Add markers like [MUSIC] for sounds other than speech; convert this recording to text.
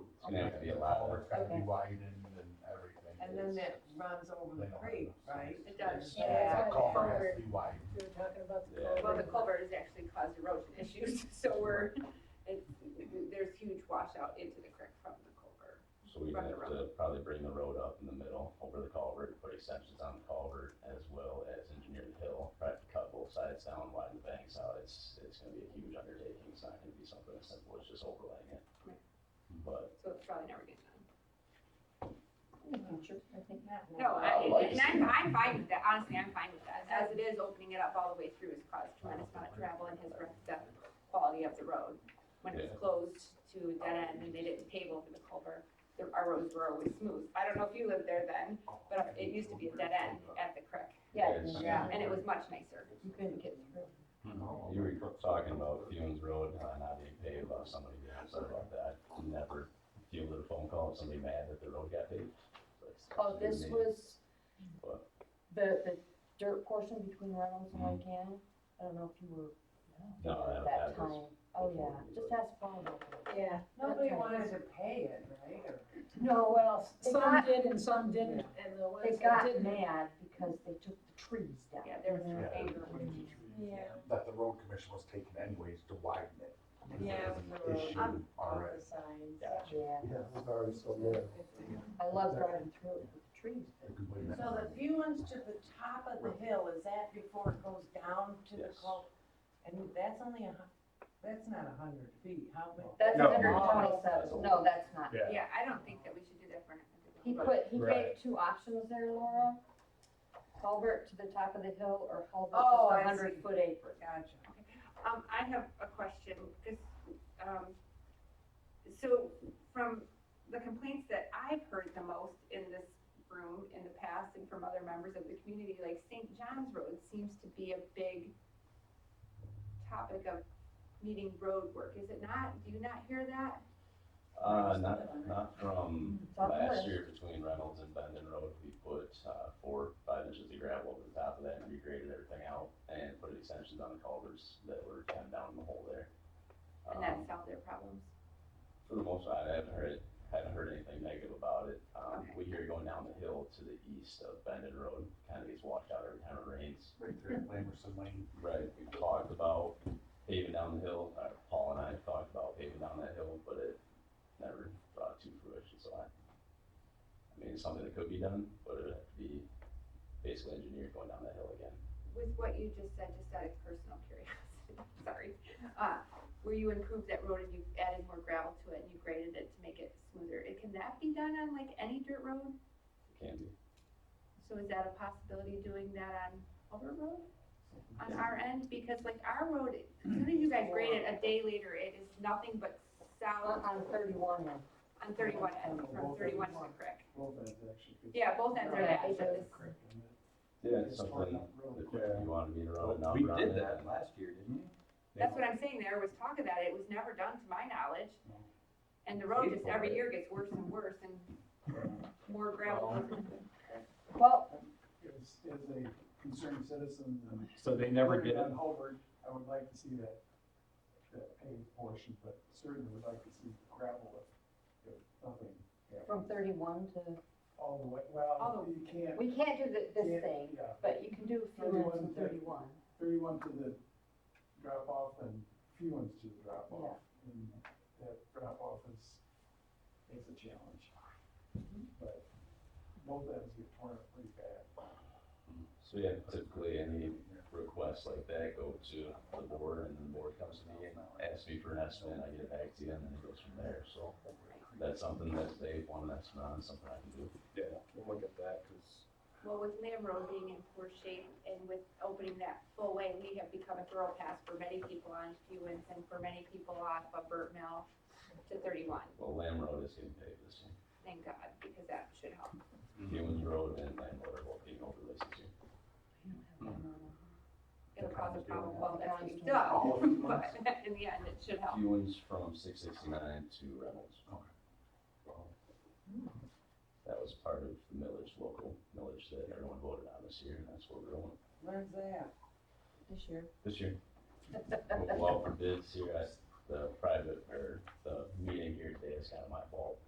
It'd have to be a lot more. It's gotta be Okay. widened and everything. And then that runs over the creek, right? It does, Yeah. That yeah. culvert has to be widened. We were talking about the Yeah. Well, the culvert. culvert has actually caused erosion issues, [LAUGHS] so we're, it, there's huge washout into the creek from the culvert. So we'd Run have around. to probably bring the road up in the middle over the culvert, put extensions on the culvert as well as engineer the hill. Probably have to cut both sides down, widen the banks out. It's, it's gonna be a huge undertaking. It's not gonna be something as simple as just overlaying it. Right. But So it's probably never getting done. I think not. No, I like to I, and see I'm, it. I'm fine with that, honestly, I'm fine with that, as it is, opening it up all the way through has caused tremendous amount of travel and has wrecked the quality of the road. When it was closed to a dead end and they didn't pave over the culvert, the- our roads were always smooth, I don't know if you lived there then, but it used to be a dead end at the creek, Yeah, Yes. yeah. and it was much nicer. You couldn't get through. You were talking about Fumes Road, uh, not being paved by somebody, being upset about that. Never fielded a phone call of somebody mad that the road got paved. It's- Oh, this was What? the, the dirt portion between Reynolds and Lake Cannon? I don't know if you were Mm-hmm. No, that, at that that time. was, Oh, before yeah, we just were- ask Paul. about that. Yeah, Nobody wanted to pay it, right? Or- no, well, They some got- did and some didn't, and the ones They that got didn't. mad because they took the trees down. Yeah, there was Yeah. favor. Yeah. That the road commission was taking anyways to widen it. because Yeah, it with the was an road. Issue already. Or the signs. Yeah, Yeah, it's already so there. I love driving through it with the trees. So the few ones to the top of the hill, is that before it goes down to the Yes. cul? And that's only a, hu- that's not a hundred feet, how many? That's No. hundred twenty-seven, no, that's not. Yeah. Yeah, I don't think that we should do that for. He another road. put, he gave Right. two options there, Laura. Culvert to the top of the hill or Oh, culvert I to a hundred see. foot apron. Gotcha. Um, I have a question, because, um, so from the complaints that I've heard the most in this room in the past and from other members of the community, like St. John's Road seems to be a big topic of needing road work, is it not? Do you not hear that? Uh, not, not from It's on the last list. year between Reynolds and Bendon Road, we put, uh, four, five inches of gravel over the top of that and regraded everything out and put extensions on the culverts that were kind of down the hole there. And Um, that solved their problems? For the most part, I haven't heard it, haven't heard anything negative about it. Um, Okay. we hear going down the hill to the east of Bendon Road, kind of gets washed out every time it rains. Right there, at Lamerson Lane. Right, we talked about paving down the hill, uh, Paul and I talked about paving down that hill, but it never brought to fruition, so I. I mean, it's something that could be done, but it'd have to be basically engineered going down that hill again. With what you just said, just out of personal curiosity, [LAUGHS] sorry, uh, where you improved that road and you added more gravel to it and you graded it to make it smoother, it- can that be done on like any dirt road? It Can be, So is that a possibility doing that on our road? On our end, because like our road, as soon as you guys grade it a day later, it is nothing but On solid on thirty-one then. on thirty-one end, from thirty-one to the creek. Both ends actually. 'cause Yeah, both ends are Yeah, bad, it but does. this, Correct, and it- yeah, it's it's something, torn up really if quick. you wanted me to run a We number on it. did that last year, didn't we? that's what I'm saying, there was talk of that, it was never done to my knowledge. And the road just every year gets worse and worse and more gravel. Well, As, as a concerned citizen. and So they never did living it? on Hobart, I would like to see that, that paved portion, but certainly would like to see gravel if, if nothing. happened. from thirty-one to, All the way, All well, the- you can't. we can't do the- yeah, this thing, Yeah, but you can do a few minutes 31 in to- thirty-one. thirty-one to the drop off and few ones to the drop off. And that drop off is, is a challenge. Mm-hmm. But both ends get torn up pretty bad. So yeah, typically any requests like that go to the board and the board comes to me and asks me for an estimate, I get it back to you and then it goes from there, so. That's something that they want an estimate on, something I can do. Yeah, we'll look at that, cause. Well, with Lamb Road being in poor shape and with opening that full way, we have become a thorough pass for many people on Hewens and for many people off of Burt Mill to thirty-one, Well, Lamb Road is getting paved this year. thank God, because that should help. Humans Road and Lamb Road are both being overlaid this year. It'll cause a problem, well, that's what you do, All of them. [LAUGHS] but in the end, it should help. Humans from six sixty-nine to Reynolds. That was part of the millage, local millage that everyone voted on this year, and that's what we're going. Where's that? This year. This year. Well, for bids here, I, the private, or the meeting here today is kind of my fault.